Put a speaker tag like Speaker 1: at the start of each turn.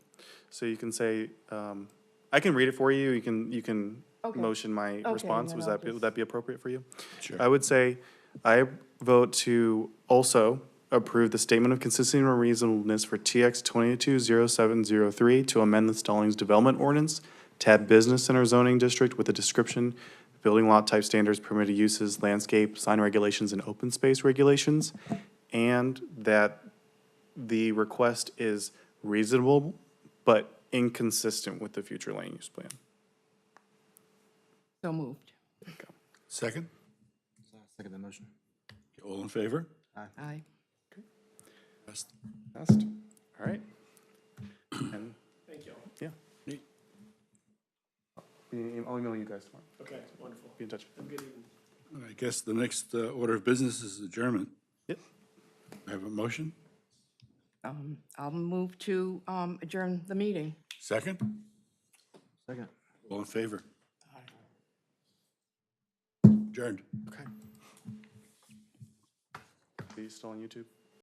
Speaker 1: So you can say, um, I can read it for you, you can, you can
Speaker 2: Okay.
Speaker 1: motion my
Speaker 2: and
Speaker 1: response,
Speaker 2: then
Speaker 1: was
Speaker 2: I'll
Speaker 1: that, be- would that be appropriate for you?
Speaker 3: Sure.
Speaker 1: I would say, I vote to also approve the statement of consistency and reasonableness for TX twenty-two zero seven zero three to amend the Stallings Development Ordinance, tab Business Center Zoning District with a description, building lot type standards, permitted uses, landscape, sign regulations, and open space regulations, and that the request is reasonable but inconsistent with the future land use plan.
Speaker 2: So moved.
Speaker 3: Second?
Speaker 4: Second the motion.
Speaker 3: All in favor?
Speaker 2: Aye.
Speaker 1: Passed. All right. Thank you. Yeah.
Speaker 3: Neat.
Speaker 1: Yeah, I'll email you guys tomorrow. Okay, wonderful. Be in touch.
Speaker 3: And I guess the next uh, order of business is adjournment.
Speaker 1: Yep.
Speaker 3: I have a motion?
Speaker 2: Um, I'll move to um, adjourn the meeting.
Speaker 3: Second?
Speaker 4: Second.
Speaker 3: All in favor? Adjourned.
Speaker 1: Okay. Are you still on YouTube?